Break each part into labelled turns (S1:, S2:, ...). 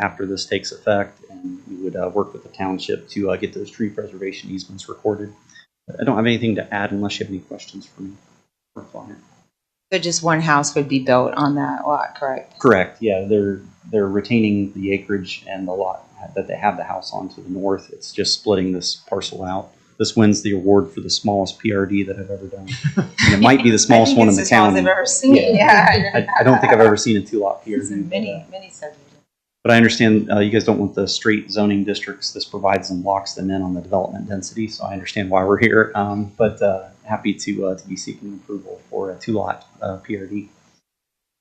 S1: after this takes effect, and we would uh, work with the township to uh, get those tree preservation easements recorded. I don't have anything to add unless you have any questions for me or client.
S2: So just one house would be built on that lot, correct?
S1: Correct, yeah, they're, they're retaining the acreage and the lot that they have the house on to the north. It's just splitting this parcel out. This wins the award for the smallest PRD that I've ever done. And it might be the smallest one in the
S2: I think it's the smallest I've
S1: town.
S2: ever seen,
S1: I,
S2: yeah.
S1: I don't think I've ever seen a two-lot
S2: It's
S1: PRD.
S2: in many, many subdivisions.
S1: But I understand uh, you guys don't want the straight zoning districts. This provides and locks them in on the development density, so I understand why we're here. Um, But uh, happy to, uh, to be seeking approval for a two-lot uh, PRD.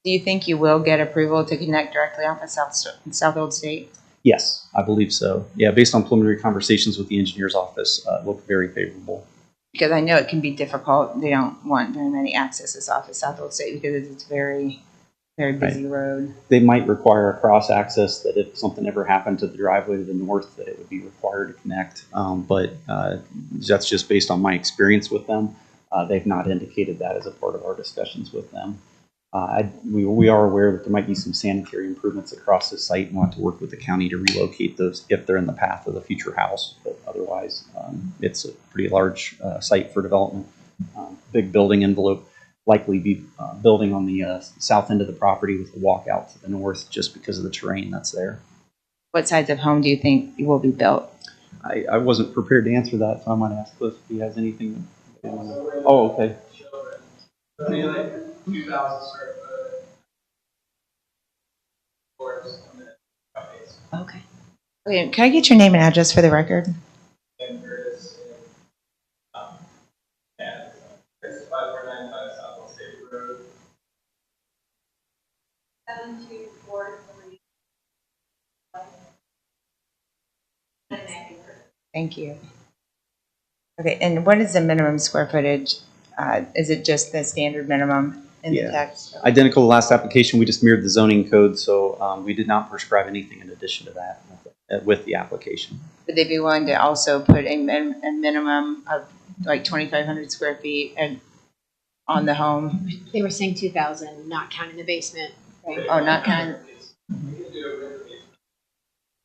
S2: Do you think you will get approval to connect directly off of South, South Old State?
S1: Yes, I believe so. Yeah, based on preliminary conversations with the engineer's office, uh, it looked very favorable.
S2: Because I know it can be difficult, they don't want very many accesses off of South Old State because it's a very, very busy road.
S1: They might require a cross-access that if something ever happened to the driveway to the north, that it would be required to connect. Um, But uh, that's just based on my experience with them. Uh, They've not indicated that as a part of our discussions with them. Uh, I- We we are aware that there might be some sanitary improvements across the site and want to work with the county to relocate those if they're in the path of the future house. But otherwise, um, it's a pretty large uh, site for development. Um, Big building envelope likely be uh, building on the uh, south end of the property with a walkout to the north just because of the terrain that's there.
S2: What size of home do you think will be built?
S1: I, I wasn't prepared to answer that, so I might ask Cliff if he has anything. that they wanna- Oh, okay.
S3: Be like two thousand square foot. Or just a minute, okay, so
S2: Okay. Okay, can I get your name and address for the record?
S3: then there is, um, yeah, it's five four nine five South Old State Road.
S4: Seven two four three. And then
S2: Thank you. Okay, and what is the minimum square footage? Uh, Is it just the standard minimum in the
S1: Yeah.
S2: text?
S1: Identical to last application, we just mirrored the zoning code, so um, we did not prescribe anything in addition to that uh, with the application.
S2: Would they be willing to also put a min, a minimum of like twenty-five hundred square feet and on the home?
S5: They were saying two thousand, not counting the basement.
S2: Oh, not kind,
S3: We can do it with the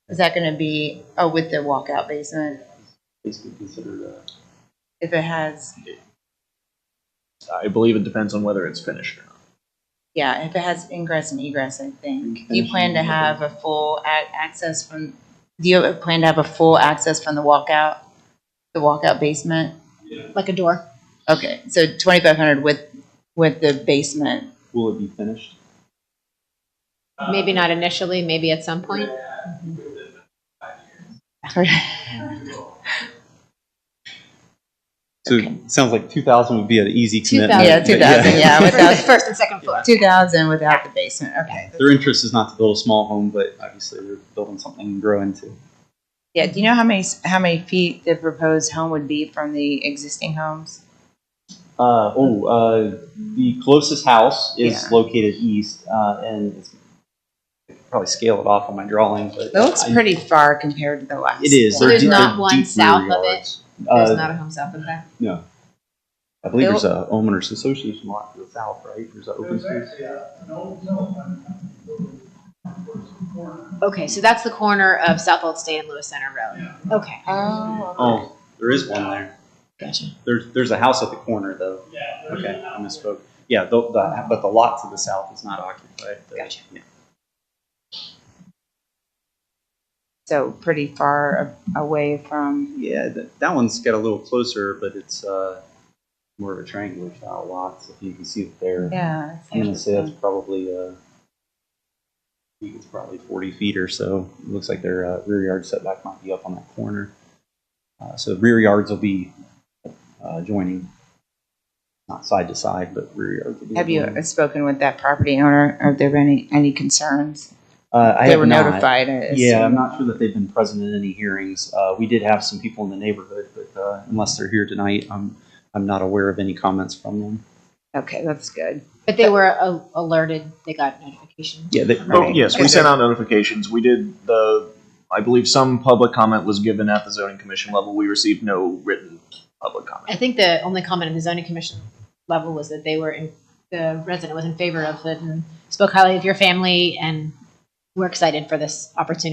S2: is that gonna be, oh, with the walkout basement?
S1: Basically considered,
S2: If it has,
S6: I believe it depends on whether it's finished or not.
S2: yeah, if it has ingress and egress, I think. Do you plan to have a full a- access from, do you plan to have a full access from the walkout? The walkout basement?
S5: Like a door.
S2: Okay, so twenty-five hundred with, with the basement.
S1: will it be finished?
S5: Maybe not initially, maybe at some point.
S1: So it sounds like 2,000 would be an easy
S5: Two
S1: commitment.
S5: thousand.
S2: Yeah, two thousand, yeah,
S5: For the
S2: without,
S5: first and second floor.
S2: two thousand without the basement, okay.
S1: Their interest is not to build a small home, but obviously they're building something to grow into.
S2: Yeah, do you know how many, s- how many feet the proposed home would be from the existing homes?
S1: Uh, oh, uh, the closest house is
S2: Yeah.
S1: located east, uh, and it's I could probably scale it off on my drawing, but
S2: That looks
S1: I-
S2: pretty far compared to the last.
S1: It is.
S5: So
S1: They're
S5: there's
S1: deep-
S5: not
S1: they're
S5: one
S1: deep rear
S5: south of it?
S1: yards.
S5: There's
S1: Uh,
S5: not a home south of that.
S1: no, I believe
S2: Bill-
S1: there's a homeowners association lot to the south, right? There's an open space.
S5: Okay, so that's the corner of South Old State and Lewis Center Road. Okay.
S2: Oh.
S1: Oh, there is one there.
S5: Gotcha.
S1: There's there's a house at the corner though.
S3: Yeah.
S1: Okay, I misspoke. Yeah, the, the, but the lot to the south is not occupied.
S5: Gotcha.
S1: Yeah.
S2: So pretty far a- away from,
S1: Yeah, that, that one's got a little closer, but it's uh, more of a triangular style lot. So if you can see it there,
S2: yeah. that's
S1: I'm gonna say that's
S2: interesting.
S1: probably uh, I think it's probably 40 feet or so. It looks like their uh, rear yard setback might be up on that corner. Uh, so rear yards will be uh, joining, not side to side, but rear yards. Will be
S2: Have you
S1: joining.
S2: spoken with that property owner? Have there been any, any concerns?
S1: Uh, I
S2: They
S1: have
S2: were
S1: not.
S2: notified. I
S1: Yeah, I'm
S2: assume.
S1: not sure that they've been present in any hearings. Uh, we did have some people in the neighborhood, but uh, unless they're here tonight, I'm I'm not aware of any comments from them.
S2: Okay, that's good.
S5: But they were a- alerted, they got notification.
S1: Yeah, they,
S2: Oh,
S6: Oh, yes, we sent out notifications. We did the, I believe some public comment was given at the zoning commission level. We received no written public comment.
S5: I think the only comment in the zoning commission level was that they were in, the resident was in favor of it and spoke highly of your family and we're excited for this opportunity